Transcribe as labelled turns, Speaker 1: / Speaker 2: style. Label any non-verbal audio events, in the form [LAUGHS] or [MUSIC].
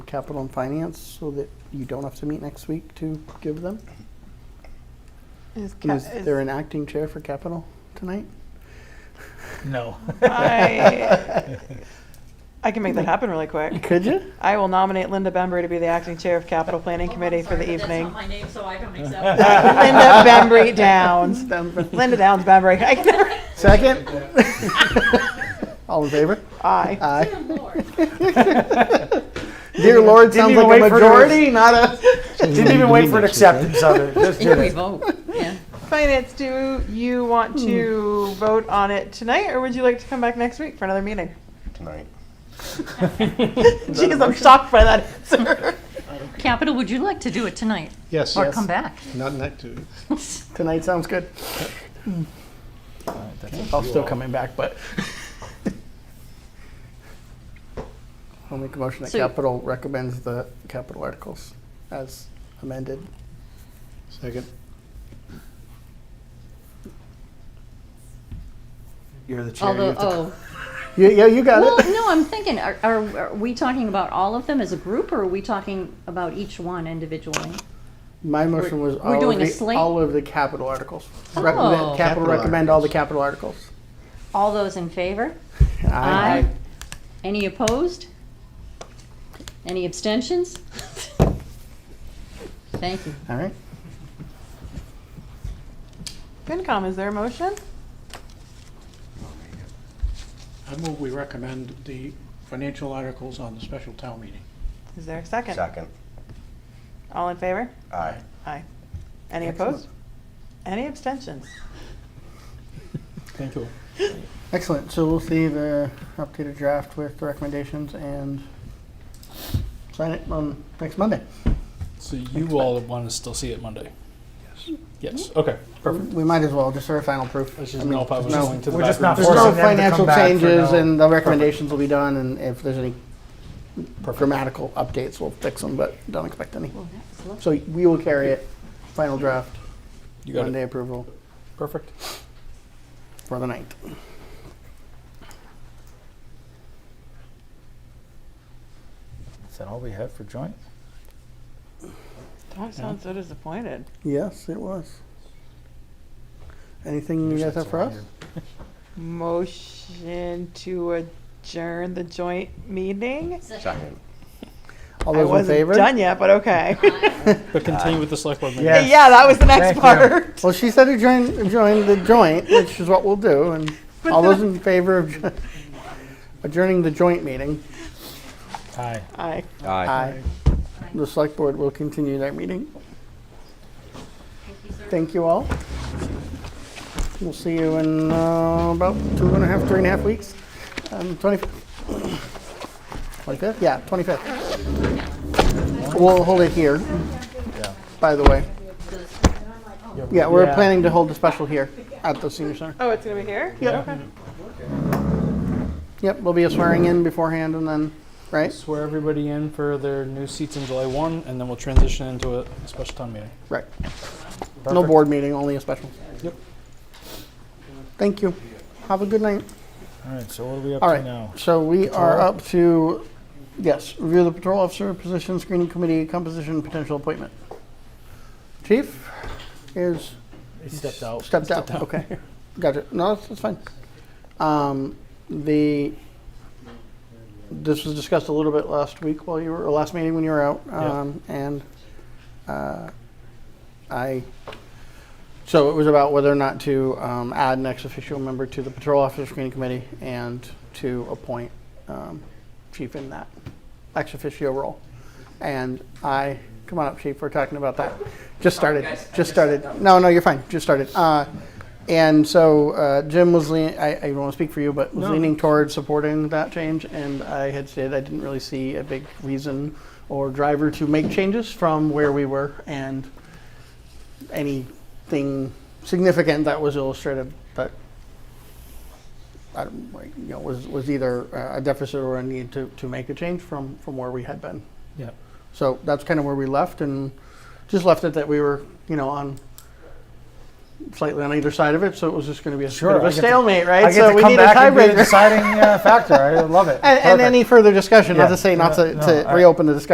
Speaker 1: capital and finance so that you don't have to meet next week to give them?
Speaker 2: Is,
Speaker 1: And
Speaker 2: ca-
Speaker 1: Is there an acting chair for capital tonight?
Speaker 3: No.
Speaker 2: I,
Speaker 3: [LAUGHS]
Speaker 2: I can make that happen really [LAUGHS] quick.
Speaker 1: Could you?
Speaker 2: I will nominate Linda Bembry to be the acting chair of Capital Planning
Speaker 4: Oh, I'm
Speaker 2: Committee for
Speaker 4: sorry,
Speaker 2: the
Speaker 4: but That's
Speaker 2: evening.
Speaker 4: not my name, so I don't accept that.
Speaker 2: [LAUGHS]
Speaker 5: [LAUGHS]
Speaker 2: Linda Bembry Downs. Linda Downs Bembry. I can never.
Speaker 1: Second? [LAUGHS] All in favor?
Speaker 2: I.
Speaker 1: Aye.
Speaker 4: Good lord.
Speaker 1: Dear Lord, sounds
Speaker 3: even
Speaker 1: like a
Speaker 3: wait for the-
Speaker 1: majority, not a.
Speaker 3: Didn't even wait for an acceptance of it, just did
Speaker 5: Did we
Speaker 3: it.
Speaker 5: vote? Yeah.
Speaker 2: Finance, do you want to vote on it tonight or would you like to come back next week for another meeting?
Speaker 6: tonight.
Speaker 2: Jeez, I'm shocked by that answer. [LAUGHS]
Speaker 5: Capital, would you like to do it tonight?
Speaker 7: Yes,
Speaker 5: Or
Speaker 7: yes.
Speaker 5: come [LAUGHS] back?
Speaker 7: Not next to.
Speaker 1: [LAUGHS] Tonight sounds good. I'll still coming back, but. [LAUGHS] I'll make a motion that
Speaker 5: So you-
Speaker 1: capital recommends the capital articles as amended.
Speaker 7: Second.
Speaker 3: You're the chair. you have
Speaker 5: Although,
Speaker 3: to-
Speaker 5: oh,
Speaker 1: Yeah, yeah, you got
Speaker 5: well,
Speaker 1: it.
Speaker 5: no, I'm thinking, are, are are we talking about all of them as a group or are we talking about each one individually?
Speaker 1: My motion was
Speaker 5: we're
Speaker 1: all of
Speaker 5: doing a
Speaker 1: the,
Speaker 5: slate?
Speaker 1: all of the capital articles. Recommend,
Speaker 5: Oh.
Speaker 1: capital
Speaker 7: Capital
Speaker 1: recommend all the capital articles.
Speaker 5: All those in favor?
Speaker 1: Aye.
Speaker 5: Any opposed? Any abstentions? [LAUGHS] Thank you.
Speaker 1: All right.
Speaker 2: FinCom, is there a motion?
Speaker 7: I move we recommend the financial articles on the special town meeting.
Speaker 2: Is there a second?
Speaker 6: Second.
Speaker 2: All in favor?
Speaker 6: Aye.
Speaker 2: Aye. Any opposed? Any abstentions?
Speaker 3: Thank you.
Speaker 1: Excellent. So we'll see the updated draft with the recommendations and sign it on next Monday.
Speaker 8: So you all want to still see it Monday? Yes. Yes, okay, perfect.
Speaker 1: We might as well, just for final proof.
Speaker 8: Let's
Speaker 1: I
Speaker 8: just
Speaker 1: mean,
Speaker 8: know if I was
Speaker 1: no-
Speaker 8: going to the
Speaker 3: We're just not
Speaker 1: There's
Speaker 8: bathroom.
Speaker 1: no
Speaker 3: Forcing them to
Speaker 1: financial
Speaker 3: come back for
Speaker 1: changes
Speaker 3: no-
Speaker 1: and the recommendations will be done and if there's any
Speaker 8: Perfect.
Speaker 1: grammatical updates, we'll fix them, but don't expect any. So we will carry it, final draft,
Speaker 8: You got
Speaker 1: Monday
Speaker 8: it,
Speaker 1: approval
Speaker 8: perfect.
Speaker 1: for the ninth.
Speaker 3: Is that all we have for joint?
Speaker 2: Dog sounds so disappointed.
Speaker 1: Yes, it was. Anything you guys have for us?
Speaker 2: Motion to adjourn the joint meeting?
Speaker 6: Second.
Speaker 1: All
Speaker 2: I
Speaker 1: those in
Speaker 2: wasn't
Speaker 1: favor?
Speaker 2: done yet, but okay.
Speaker 8: But continue with the select board meeting.
Speaker 3: Yes.
Speaker 2: [LAUGHS] yeah, that was the next
Speaker 3: Thank you.
Speaker 2: part. [LAUGHS]
Speaker 1: Well, she said to join, join the joint, which is what we'll do,
Speaker 2: [LAUGHS]
Speaker 1: and all those in favor of jo- adjourning the joint meeting,
Speaker 3: Aye.
Speaker 2: Aye.
Speaker 1: aye. The select board will continue their meeting. Thank you all. We'll see you in uh, about two and a half, three and a half weeks. Um, 25th? 25th? Yeah, 25th. We'll hold it here, by the way. Yeah, we're
Speaker 3: Yeah.
Speaker 1: planning to hold a special here at the senior center.
Speaker 2: Oh, it's going to be here?
Speaker 1: Yep.
Speaker 2: Okay.
Speaker 1: Yep, there'll be a swearing in beforehand and then, right?
Speaker 8: Swear everybody in for their new seats in July 1, and then we'll transition into a special town meeting.
Speaker 1: Right. No board meeting, only a special.
Speaker 8: Yep.
Speaker 1: Thank you. Have a good night.
Speaker 3: All right, so what are we up
Speaker 1: All
Speaker 3: to
Speaker 1: right,
Speaker 3: now?
Speaker 1: so we are
Speaker 3: Patrol?
Speaker 1: up to, yes, review the patrol officer position, screening committee, composition, potential appointment. Chief is
Speaker 8: He stepped out.
Speaker 1: Oh, stepped out, okay. Gotcha, no, that's, that's fine. Um, the, this was discussed a little bit last week while you were, or last meeting when you were out.
Speaker 8: Yeah.
Speaker 1: Um, and, uh, I, so it was about whether or not to, um, add an ex officio member to the patrol officer screening committee and to appoint, um, chief in that ex officio role. And I, come on up, chief, we're talking about that. Just started, just started. No, no, you're fine, just started. Uh, and so, uh, Jim was leaning, I, I don't want to speak for you, but was
Speaker 8: No.
Speaker 1: leaning towards supporting that change. And I had said I didn't really see a big reason or driver to make changes from where we were and anything significant that was illustrated that I don't, like, you know, was, was either uh, a deficit or a need to, to make a change from, from where we had been.
Speaker 8: Yeah.
Speaker 1: So that's kind of where we left and just left it that we were, you know, on slightly on either side of it. So it was just going to be a bit
Speaker 3: Sure,
Speaker 1: of
Speaker 3: I
Speaker 1: a
Speaker 3: get to-
Speaker 1: stalemate, right?
Speaker 3: I get
Speaker 1: so
Speaker 3: to
Speaker 1: we
Speaker 3: come
Speaker 1: need a
Speaker 3: back and be the [LAUGHS]
Speaker 1: tiebreaker.
Speaker 3: deciding uh, factor. I love it.
Speaker 1: [LAUGHS] And, and
Speaker 3: Perfect.
Speaker 1: any further discussion, not
Speaker 3: Yeah.
Speaker 1: to say not
Speaker 3: No,
Speaker 1: to,
Speaker 3: no,
Speaker 1: to
Speaker 3: I-
Speaker 1: reopen the discussion.